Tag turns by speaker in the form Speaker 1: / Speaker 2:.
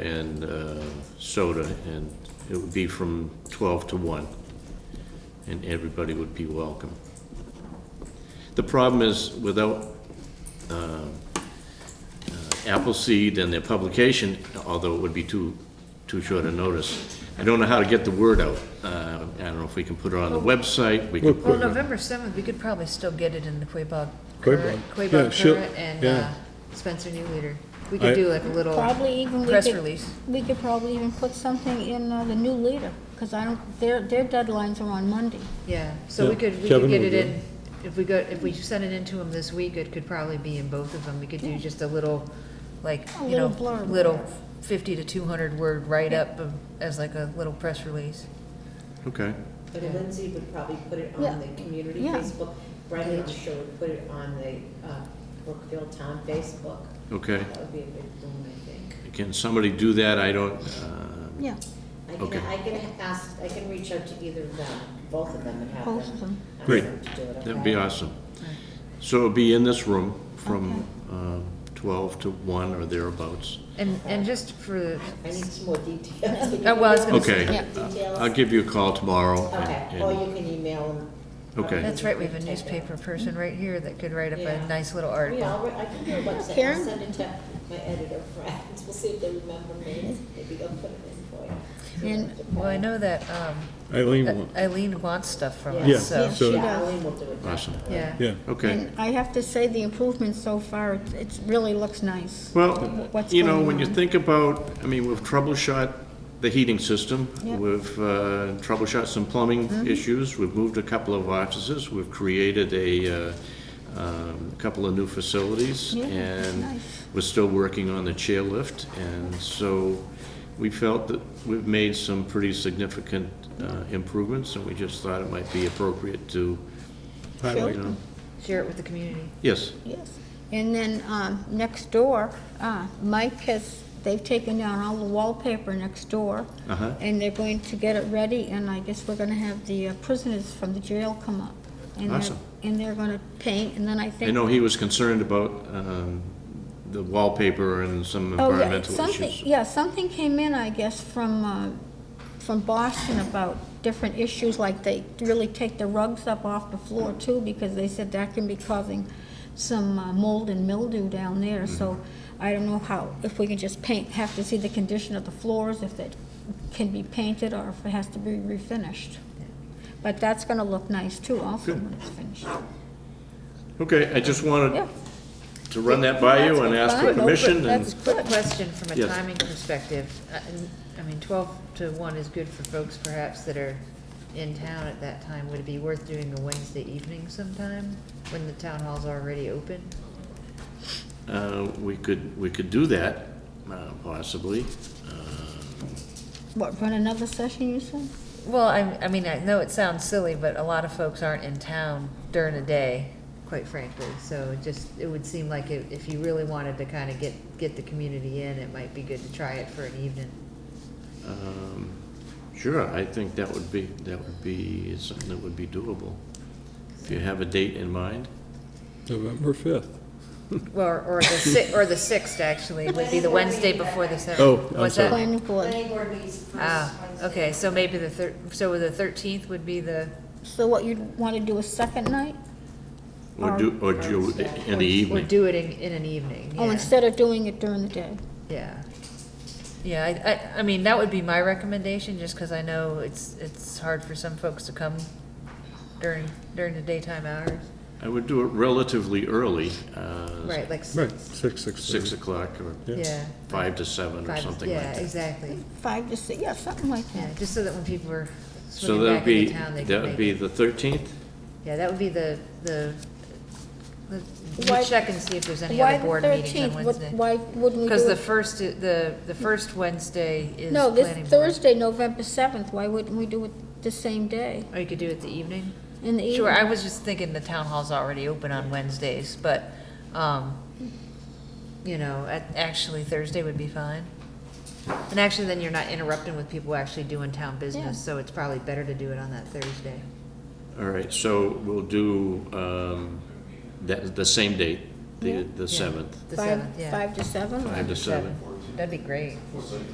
Speaker 1: and uh, soda, and it would be from 12 to 1, and everybody would be welcome. The problem is, without um, uh, Appleseed and their publication, although it would be too, too short a notice, I don't know how to get the word out. Uh, I don't know if we can put it on the website, we could
Speaker 2: Well,
Speaker 1: put it
Speaker 2: November 7th, we could probably still get it in the Quabog
Speaker 3: Quabog.
Speaker 2: Current,
Speaker 3: Yeah,
Speaker 2: Quabog
Speaker 3: sure.
Speaker 2: Current and
Speaker 3: Yeah.
Speaker 2: uh, Spencer New Leader. We
Speaker 3: I-
Speaker 2: could do like a little
Speaker 4: Probably even, we
Speaker 2: press
Speaker 4: could,
Speaker 2: release.
Speaker 4: we could probably even put something in uh, the new leader, because I don't, their, their deadlines are on Monday.
Speaker 2: Yeah, so
Speaker 3: Yeah,
Speaker 2: we could, we
Speaker 3: Kevin
Speaker 2: could get
Speaker 3: will
Speaker 2: it
Speaker 3: do
Speaker 2: in, if we go, if we send it in to them this week, it could probably be in both of them. We could do just a little, like,
Speaker 4: A
Speaker 2: you know,
Speaker 4: little blurb.
Speaker 2: little 50 to 200 word write-up of- as like a little press release.
Speaker 1: Okay.
Speaker 5: But Lindsay would probably put it
Speaker 4: Yeah.
Speaker 5: on the community
Speaker 4: Yeah.
Speaker 5: Facebook, Brendan, I'm sure would put it on the uh, Brookfield Town Facebook.
Speaker 1: Okay.
Speaker 5: That would be a big boom, I think.
Speaker 1: Can somebody do that? I don't, uh,
Speaker 4: Yeah,
Speaker 5: I
Speaker 1: Okay.
Speaker 5: can, I can ask, I can reach out to either of them, both of them and have them.
Speaker 4: Both of them.
Speaker 5: ask
Speaker 1: Great.
Speaker 5: them to do it,
Speaker 1: that'd
Speaker 5: okay?
Speaker 1: be awesome. So it'll be in this room from um, 12 to 1 or thereabouts.
Speaker 2: And, and just for,
Speaker 5: I need some more details.
Speaker 2: Oh, well, I was gonna
Speaker 1: Okay.
Speaker 5: Details?
Speaker 1: I'll give you a call tomorrow. and-
Speaker 5: Okay,
Speaker 1: and-
Speaker 5: or you can email them.
Speaker 1: Okay.
Speaker 2: that's right, we have a
Speaker 5: Take it.
Speaker 2: newspaper
Speaker 4: Mm-hmm.
Speaker 2: person right here that could write up a
Speaker 5: Yeah.
Speaker 2: nice little
Speaker 5: Oh, Yeah,
Speaker 2: article.
Speaker 5: I'll, write- I can do a website, I'll
Speaker 4: Karen?
Speaker 5: send it to my editor friends, we'll see if they remember me, maybe they'll put it in for you.
Speaker 4: And-
Speaker 2: Well, I know that um,
Speaker 3: Eileen won.
Speaker 2: Eileen wants stuff from
Speaker 5: Yeah.
Speaker 3: Yeah,
Speaker 2: us, so.
Speaker 3: so,
Speaker 5: Yeah, Eileen will do it.
Speaker 1: Awesome.
Speaker 5: definitely.
Speaker 2: Yeah.
Speaker 3: yeah.
Speaker 1: Okay.
Speaker 4: and I have to say, the improvement so far, it's- it's really looks nice.
Speaker 1: Well,
Speaker 4: What's
Speaker 1: you know,
Speaker 4: going
Speaker 1: when you
Speaker 4: on?
Speaker 1: think about, I mean, we've troubleshot the heating system,
Speaker 4: Yep. Mm-hmm.
Speaker 1: we've uh, troubleshot some plumbing issues, we've moved a couple of offices, we've created a uh, um, couple of new facilities,
Speaker 4: Yeah, that's
Speaker 1: and
Speaker 4: nice.
Speaker 1: we're still working on the chairlift, and so we felt that we've made some pretty significant uh, improvements, and we just thought it might be appropriate to, you
Speaker 3: Highlight.
Speaker 1: know,
Speaker 2: Share it with the community.
Speaker 1: yes,
Speaker 4: Yes. And then, um, next door, uh, Mike has, they've taken down all the wallpaper next door.
Speaker 1: Uh-huh.
Speaker 4: And they're going to get it ready, and I guess we're gonna have the uh, prisoners from the jail come up. and they're-
Speaker 1: Awesome.
Speaker 4: And they're gonna paint, and then I think.
Speaker 1: I know he was concerned about um, the wallpaper and some
Speaker 4: Oh yeah, it's
Speaker 1: environmental
Speaker 4: something.
Speaker 1: issues.
Speaker 4: Yeah, something came in, I guess, from, uh, from Boston about different issues, like they really take the rugs up off the floor too, because they said that can be causing some uh, mold and mildew down there, so
Speaker 1: Mm-hmm.
Speaker 4: I don't know how, if we can just paint, have to see the condition of the floors, if it can be painted or if it has to be refinished. But that's gonna look nice too, also,
Speaker 1: Good.
Speaker 4: when it's finished.
Speaker 1: Okay, I just wanted
Speaker 4: Yeah.
Speaker 1: to run that by you
Speaker 4: That's
Speaker 1: and ask for
Speaker 4: fine. No, but
Speaker 1: permission,
Speaker 4: That's
Speaker 1: and,
Speaker 2: Quick
Speaker 4: good.
Speaker 2: question from a
Speaker 1: Yes.
Speaker 2: timing perspective. Uh, and- I mean, 12 to 1 is good for folks perhaps that are in town at that time. Would it be worth doing a Wednesday evening sometime when the town hall's already open?
Speaker 1: uh, we could, we could do that, uh, possibly. Uh,
Speaker 4: What, run another session, you said?
Speaker 2: Well, I, I mean, I know it sounds silly, but a lot of folks aren't in town during the day, quite frankly. So it just, it would seem like if if you really wanted to kind of get, get the community in, it might be good to try it for an evening.
Speaker 1: Um, Sure, I think that would be, that would be something that would be doable. If you have a date in mind,
Speaker 3: November 5th.
Speaker 2: Well, Or, or the si, or the sixth, actually, would be the Wednesday before the seventh.
Speaker 3: Oh, I'm
Speaker 2: What's that?
Speaker 3: sorry.
Speaker 4: Planning board.
Speaker 5: Planning board meets first
Speaker 2: Ah,
Speaker 5: Wednesday.
Speaker 2: okay, so maybe the thir, so the thirteenth would be the,
Speaker 4: So what, you'd want to do a second night?
Speaker 1: or do, or do it in the
Speaker 2: or
Speaker 1: evening.
Speaker 2: do it in, in an evening,
Speaker 4: Oh,
Speaker 2: yeah,
Speaker 4: instead of doing it during the day?
Speaker 2: yeah. Yeah, I, I, I mean, that would be my recommendation, just because I know it's, it's hard for some folks to come during, during the daytime hours.
Speaker 1: I would do it relatively early, uh,
Speaker 2: Right, like, s-
Speaker 3: Right, 6, 6.
Speaker 1: six o'clock or
Speaker 3: yeah.
Speaker 2: yeah.
Speaker 1: five to seven or
Speaker 2: five-
Speaker 1: something like
Speaker 2: Yeah,
Speaker 1: that.
Speaker 2: exactly,
Speaker 4: Five to six, yeah, something like
Speaker 2: yeah,
Speaker 4: that.
Speaker 2: just so that when people are
Speaker 1: So
Speaker 2: swimming
Speaker 1: that'd
Speaker 2: back into
Speaker 1: be,
Speaker 2: town, they can make it.
Speaker 1: that would be the thirteenth?
Speaker 2: Yeah, that would be the, the, the-
Speaker 4: Why-
Speaker 2: we'll check and see if there's any
Speaker 4: Why
Speaker 2: other
Speaker 4: the
Speaker 2: board meetings
Speaker 4: 13th?
Speaker 2: on
Speaker 4: What-
Speaker 2: Wednesday.
Speaker 4: Why wouldn't we do it?
Speaker 2: Because the first, i- the, the first Wednesday is planning
Speaker 4: No, this
Speaker 2: board.
Speaker 4: Thursday, November 7th, why wouldn't we do it the same day,
Speaker 2: Or Oh, you could do it the evening?
Speaker 4: in the evening?
Speaker 2: Sure, I was just thinking the town hall's already open on Wednesdays, but, um, you know, at- actually Thursday would be fine. And actually, then you're not interrupting with people actually doing town business,
Speaker 4: Yeah.
Speaker 2: so it's probably better to do it on that Thursday.
Speaker 1: All right, so we'll do um, that, the same date, the, the
Speaker 2: Yeah.
Speaker 1: seventh,
Speaker 2: The
Speaker 4: Five-
Speaker 2: seventh, yeah.
Speaker 4: Five to seven?
Speaker 1: five to seven.
Speaker 2: Seven. that'd be great.